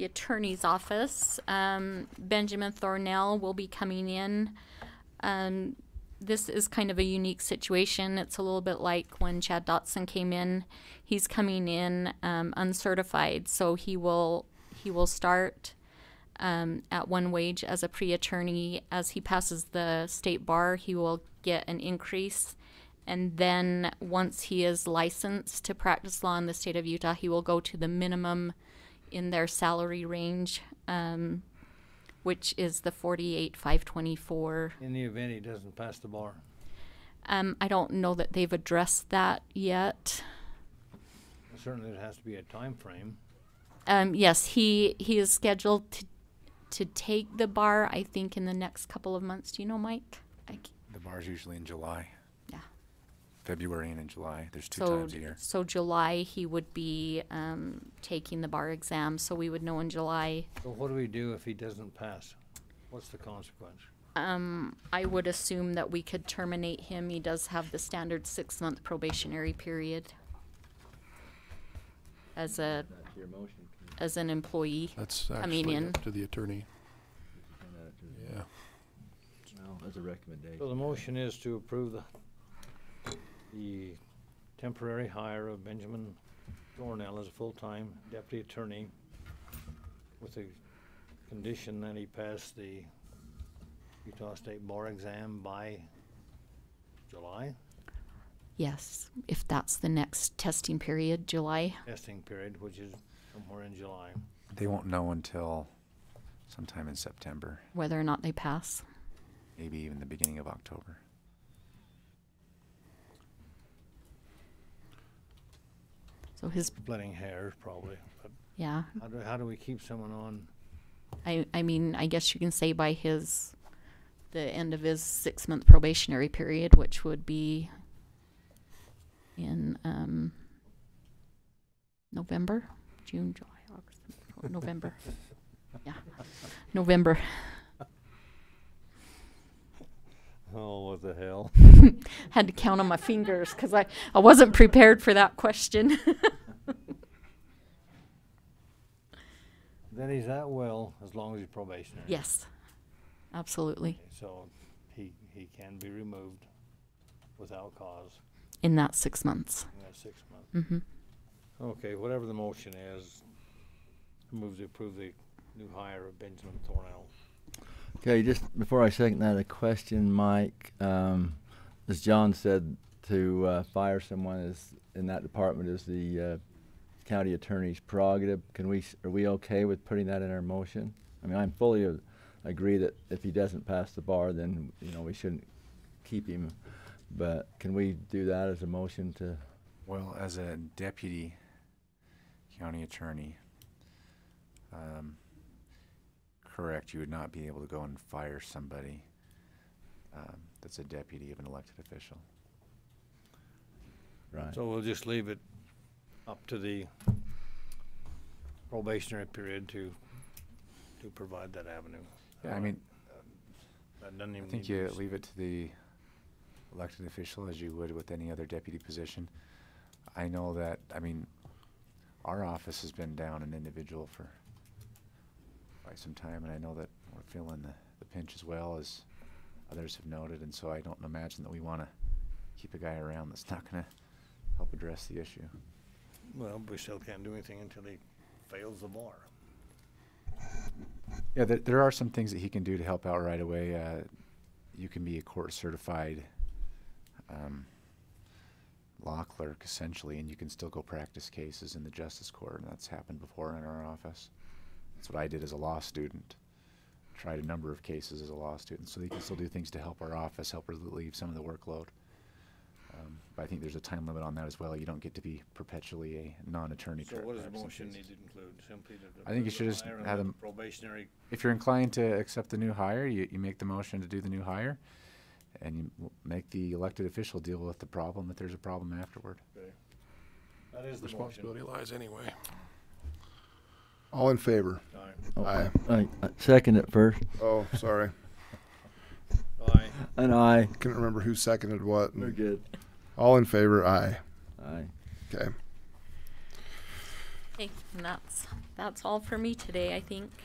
the attorney's office. Um, Benjamin Thornell will be coming in. Um, this is kind of a unique situation. It's a little bit like when Chad Dotson came in. He's coming in um, uncertified, so he will he will start um, at one wage as a pre attorney. As he passes the state bar, he will get an increase. And then once he is licensed to practice law in the state of Utah, he will go to the minimum in their salary range, um, which is the 48,524. In the event he doesn't pass the bar. Um, I don't know that they've addressed that yet. Certainly, there has to be a time frame. Um, yes, he he is scheduled to to take the bar. I think in the next couple of months. Do you know, Mike? I c The bar's usually in July, yeah. February and in July. There's two so times a year. so July he would be um, taking the bar exam. So we would know in July. So what do we do if he doesn't pass? What's the consequence? Um, I would assume that we could terminate him. He does have the standard six month probationary period as a as an employee. That's Coming actually in. up to the attorney. Yeah. Well, as a recommendation. So the motion is to approve the, the temporary hire of Benjamin Thornell as a full-time deputy attorney with the condition that he pass the Utah State Bar exam by July Yes, if that's the next testing period, July. testing period, which is somewhere in July. They won't know until sometime in September, whether or not they pass. maybe even the beginning of October. So his, Splitting hairs, probably. But yeah, how do, how do we keep someone on? I, I mean, I guess you can say by his, the end of his six month probationary period, which would be in um, November, June, July, August, September, November. yeah, November. Oh, what the hell? Had to count on my fingers because I, I wasn't prepared for that question. That he's at will as long as he's probationary. yes, absolutely. So he, he can be removed without cause In that six months. in that six months. Mm-hmm. Okay, whatever the motion is, I move to approve the new hire of Benjamin Thornell. Okay, just before I second that, a question, Mike. Um, as John said, to uh, fire someone is in that department is the uh, county attorney's prerogative. Can we? s- Are we okay with putting that in our motion? I mean, I'm fully a- agree that if he doesn't pass the bar, then you know we shouldn't keep him. But can we do that as a motion to? Well, as a deputy county attorney, um, correct, you would not be able to go and fire somebody um, that's a deputy of an elected official. Right. So we'll just leave it up to the probationary period to, to provide that avenue. Yeah, I mean, That doesn't I even need think to you be leave it to the elected official as you would with any other deputy position. I know that, I mean, our office has been down an individual for quite some time, and I know that we're feeling the, the pinch as well as others have noted, and so I don't imagine that we wanna keep a guy around that's not gonna help address the issue. Well, we still can't do anything until he fails the bar. Yeah, there, there are some things that he can do to help out right away. Uh, you can be a court certified um, law clerk essentially, and you can still go practice cases in the justice court, and that's happened before in our office. That's what I did as a law student. Tried a number of cases as a law student, so he can still do things to help our office, help relieve some of the workload. Um, but I think there's a time limit on that as well. You don't get to be perpetually a non-attorney. So tra- what does the motion practicing cases. need to include? Simply to. I think approve the you should just hire and have let them- the Probationary If you're inclined to accept the new hire, you, you make the motion to do the new hire, and you m- make the elected official deal with the problem if there's a problem afterward. That is the motion. Responsibility lies anyway. All in favor? Aye. Oh, Aye. I, I second it first. Oh, sorry. Aye. An aye. Couldn't remember who seconded what. We're good. All in favor, aye. Aye. Okay. Okay, and that's, that's all for me today, I think.